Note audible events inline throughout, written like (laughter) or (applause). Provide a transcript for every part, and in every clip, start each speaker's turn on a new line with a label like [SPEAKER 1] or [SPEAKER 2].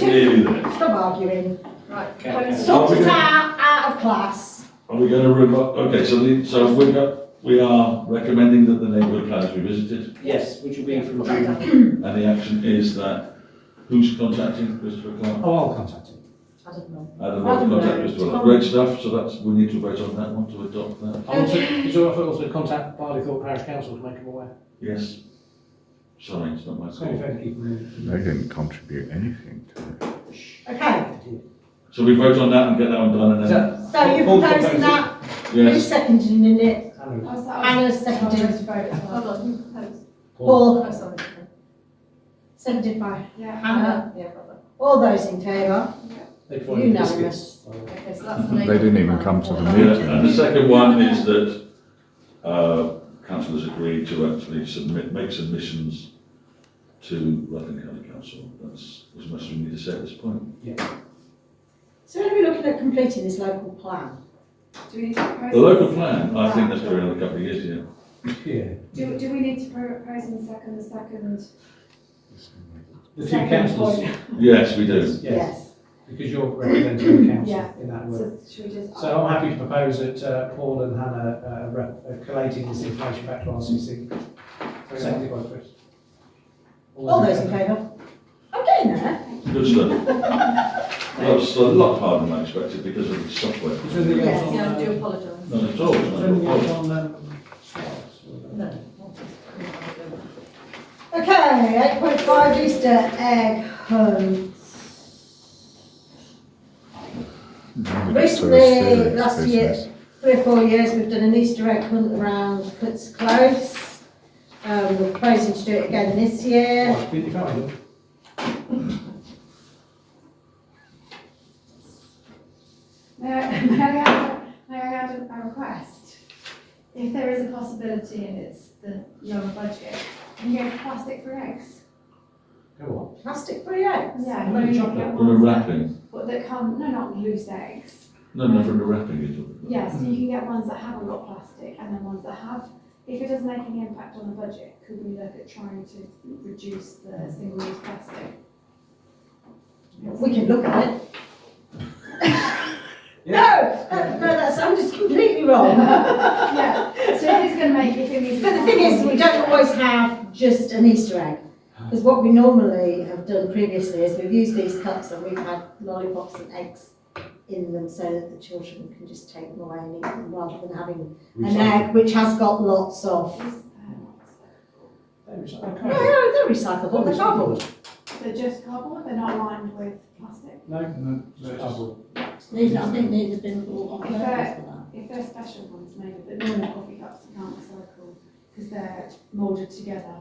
[SPEAKER 1] Stay there.
[SPEAKER 2] Stop arguing.
[SPEAKER 3] Okay.
[SPEAKER 2] Sort it out, out of class.
[SPEAKER 1] Are we going to revoke, okay, so the, so we've got, we are recommending that the neighbourhood plan is revisited,
[SPEAKER 3] Yes, which will be from
[SPEAKER 2] Put that
[SPEAKER 3] June.
[SPEAKER 2] down.
[SPEAKER 1] and the action is that, who's contacting Christopher Clark?
[SPEAKER 4] Oh, I'll contact him.
[SPEAKER 2] I don't know.
[SPEAKER 1] Adam
[SPEAKER 2] I
[SPEAKER 1] will
[SPEAKER 2] don't
[SPEAKER 1] contact
[SPEAKER 2] know.
[SPEAKER 1] Mr. Waller. Great stuff, so that's, we need to vote on that one to adopt that,
[SPEAKER 4] I'll also, is it all right if I also contact Barleythorpe Parish Council to make them aware?
[SPEAKER 1] yes. Sorry, it's not my
[SPEAKER 4] So if
[SPEAKER 1] call.
[SPEAKER 4] they keep moving.
[SPEAKER 5] They didn't contribute anything to it.
[SPEAKER 2] Okay,
[SPEAKER 1] So we vote on that and get that one done and
[SPEAKER 4] Is
[SPEAKER 1] then,
[SPEAKER 4] that?
[SPEAKER 2] so you're
[SPEAKER 4] Paul
[SPEAKER 2] proposing
[SPEAKER 4] proposed
[SPEAKER 2] that, who's
[SPEAKER 1] yes,
[SPEAKER 2] seconding it?
[SPEAKER 4] Hannah.
[SPEAKER 2] Hannah's seconding,
[SPEAKER 6] Hold on, who proposed?
[SPEAKER 2] Paul,
[SPEAKER 6] Oh, sorry.
[SPEAKER 2] seconded by
[SPEAKER 6] Yeah.
[SPEAKER 2] Hannah.
[SPEAKER 6] Yeah, brother.
[SPEAKER 2] all those in favour,
[SPEAKER 4] They provide the
[SPEAKER 2] unanimous.
[SPEAKER 4] biscuits. Oh.
[SPEAKER 6] Okay, so that's the
[SPEAKER 5] They
[SPEAKER 6] name.
[SPEAKER 5] didn't even come to the
[SPEAKER 1] yeah, and the second one is that, uh, council has agreed to actually submit, make submissions to Rutland County Council, that's as much as we need to say at this point.
[SPEAKER 2] So when are we looking at completing this local plan?
[SPEAKER 6] Do we need to propose?
[SPEAKER 1] The local plan, I think that's going on in a couple of years, yeah.
[SPEAKER 4] Yeah.
[SPEAKER 6] Do, do we need to propose in second, the second?
[SPEAKER 4] The two
[SPEAKER 6] second
[SPEAKER 4] councils,
[SPEAKER 6] point?
[SPEAKER 1] Yes, we do.
[SPEAKER 4] yes, because you're representing the council in that work.
[SPEAKER 6] So should we just?
[SPEAKER 4] So I'm happy to propose that uh, Paul and Hannah uh, rep- uh, collating this information back to RCC.
[SPEAKER 6] Mm-hmm.
[SPEAKER 4] Seconded by Chris.
[SPEAKER 2] All those in favour? I'm getting there.
[SPEAKER 1] Good stuff. That's a lot harder than I expected because of the software.
[SPEAKER 4] Is there anything else on,
[SPEAKER 6] Yeah, I do
[SPEAKER 4] uh,
[SPEAKER 6] apologise.
[SPEAKER 1] Not at all.
[SPEAKER 4] is there anything else
[SPEAKER 1] no.
[SPEAKER 4] on, um, Scott's or-
[SPEAKER 6] No.
[SPEAKER 2] Okay, eight point five Easter egg hunt.
[SPEAKER 5] Nobody took
[SPEAKER 2] Recently,
[SPEAKER 5] serious
[SPEAKER 2] last year,
[SPEAKER 5] business.
[SPEAKER 2] three or four years, we've done an Easter egg hunt around Cuts Close. Um, we're proposing to do it again this year.
[SPEAKER 4] Right, you can't, you?
[SPEAKER 7] May I, (laughs) may I add, may I add a request? If there is a possibility and it's the lower budget, can you go for plastic for eggs?
[SPEAKER 4] Go
[SPEAKER 2] Plastic free eggs?
[SPEAKER 7] Yeah.
[SPEAKER 4] Maybe
[SPEAKER 7] you
[SPEAKER 4] chocolate.
[SPEAKER 1] From
[SPEAKER 7] get
[SPEAKER 1] the
[SPEAKER 7] ones that-
[SPEAKER 1] wrapping,
[SPEAKER 7] But that come, no, not loose eggs.
[SPEAKER 1] no, no, from the wrapping. you're talking about.
[SPEAKER 7] Yeah, so you can get ones that haven't got plastic and then ones that have. If it doesn't make any impact on the budget, could we look at trying to reduce the single-use plastic?
[SPEAKER 2] We can look at it. No, that- no, that sounded completely wrong.
[SPEAKER 7] Yeah, so if it's gonna make, if it needs.
[SPEAKER 2] But the thing is, we don't always have just an Easter egg. Because what we normally have done previously is we've used these cups and we've had lollipops and eggs in them so that the children can just take them away and eat them rather than having
[SPEAKER 4] on.
[SPEAKER 2] an egg which has got lots of.
[SPEAKER 7] Is, um,
[SPEAKER 4] Recycle.
[SPEAKER 2] No,
[SPEAKER 4] Okay.
[SPEAKER 2] no, they're recyclable, they're cardboard.
[SPEAKER 7] They're just cardboard, they're not lined with plastic.
[SPEAKER 4] No, just cardboard.
[SPEAKER 8] These, I think these have been bought on
[SPEAKER 7] Is
[SPEAKER 8] purpose
[SPEAKER 7] that-
[SPEAKER 8] for
[SPEAKER 7] If they're special ones maybe, but normal coffee cups you can't recycle because they're moulded together.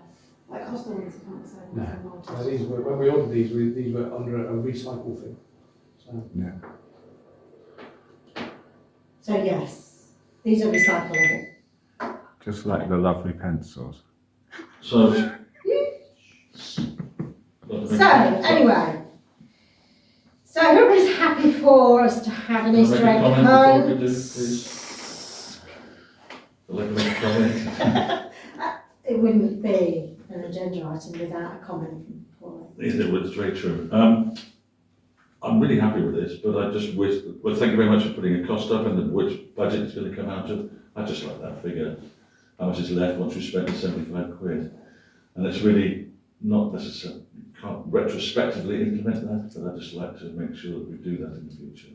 [SPEAKER 7] Like hostel ones you can't recycle,
[SPEAKER 4] No.
[SPEAKER 7] they're moulded.
[SPEAKER 4] No, these were, when we ordered these, we, these were under a recycle thing. So,
[SPEAKER 2] So yes, these are recyclable.
[SPEAKER 5] Just like the lovely pencils.
[SPEAKER 1] So.
[SPEAKER 2] So uh, anyway, so who is happy for us to have an
[SPEAKER 1] Can I
[SPEAKER 2] Easter
[SPEAKER 1] make a
[SPEAKER 2] egg
[SPEAKER 1] comment before we
[SPEAKER 2] hunt?
[SPEAKER 1] do, please? I'd like to make a comment.
[SPEAKER 2] (laughs) It wouldn't be an agenda item without a comment from Paul.
[SPEAKER 1] Is it, it's very true. Um, I'm really happy with this, but I just wish, well, thank you very much for putting a cost up and the- which budget it's going to come out of. I just like that figure, how much is left once we spent the seventy-five quid. And it's really not necessary, can't retrospectively implement that, but I just like to make sure that we do that in the future.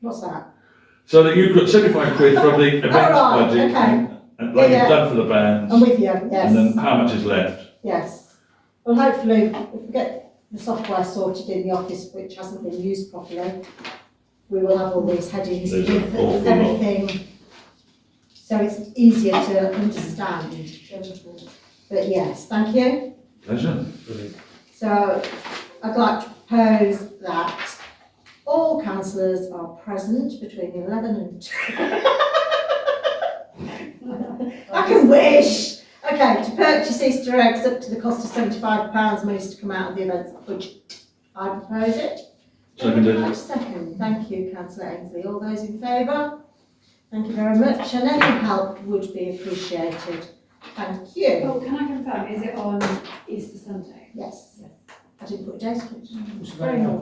[SPEAKER 2] What's that?
[SPEAKER 1] So that you could seventy-five quid from
[SPEAKER 2] (laughs)
[SPEAKER 1] the events
[SPEAKER 2] right,
[SPEAKER 1] budget,
[SPEAKER 2] okay.
[SPEAKER 1] and like
[SPEAKER 2] Yeah,
[SPEAKER 1] you've
[SPEAKER 2] yeah.
[SPEAKER 1] done for the
[SPEAKER 2] I'm
[SPEAKER 1] bands,
[SPEAKER 2] with you,
[SPEAKER 1] and then
[SPEAKER 2] yes,
[SPEAKER 1] how much is left?
[SPEAKER 2] yes. Well, hopefully, if we get the software sorted in the office, which hasn't been used properly, we will have all these headings
[SPEAKER 1] There's
[SPEAKER 2] with
[SPEAKER 1] an awful lot.
[SPEAKER 2] everything. So it's easier to understand, but yes, thank you.
[SPEAKER 1] Pleasure.
[SPEAKER 4] brilliant.
[SPEAKER 2] So I'd like to propose that all councillors are present between eleven and two. I can wish. Okay, to purchase Easter eggs up to the cost of seventy-five pounds needs to come out of the events budget. I propose it.
[SPEAKER 1] Seconded.
[SPEAKER 2] Right, Second, thank you councillor Ainsley. All those in favour? Thank you very much and any help would be appreciated. Thank you.
[SPEAKER 7] Well, can I confirm, is it on Easter Sunday?
[SPEAKER 2] Yes. I didn't put a date on it.
[SPEAKER 4] It's
[SPEAKER 2] Very
[SPEAKER 4] very
[SPEAKER 2] naughty.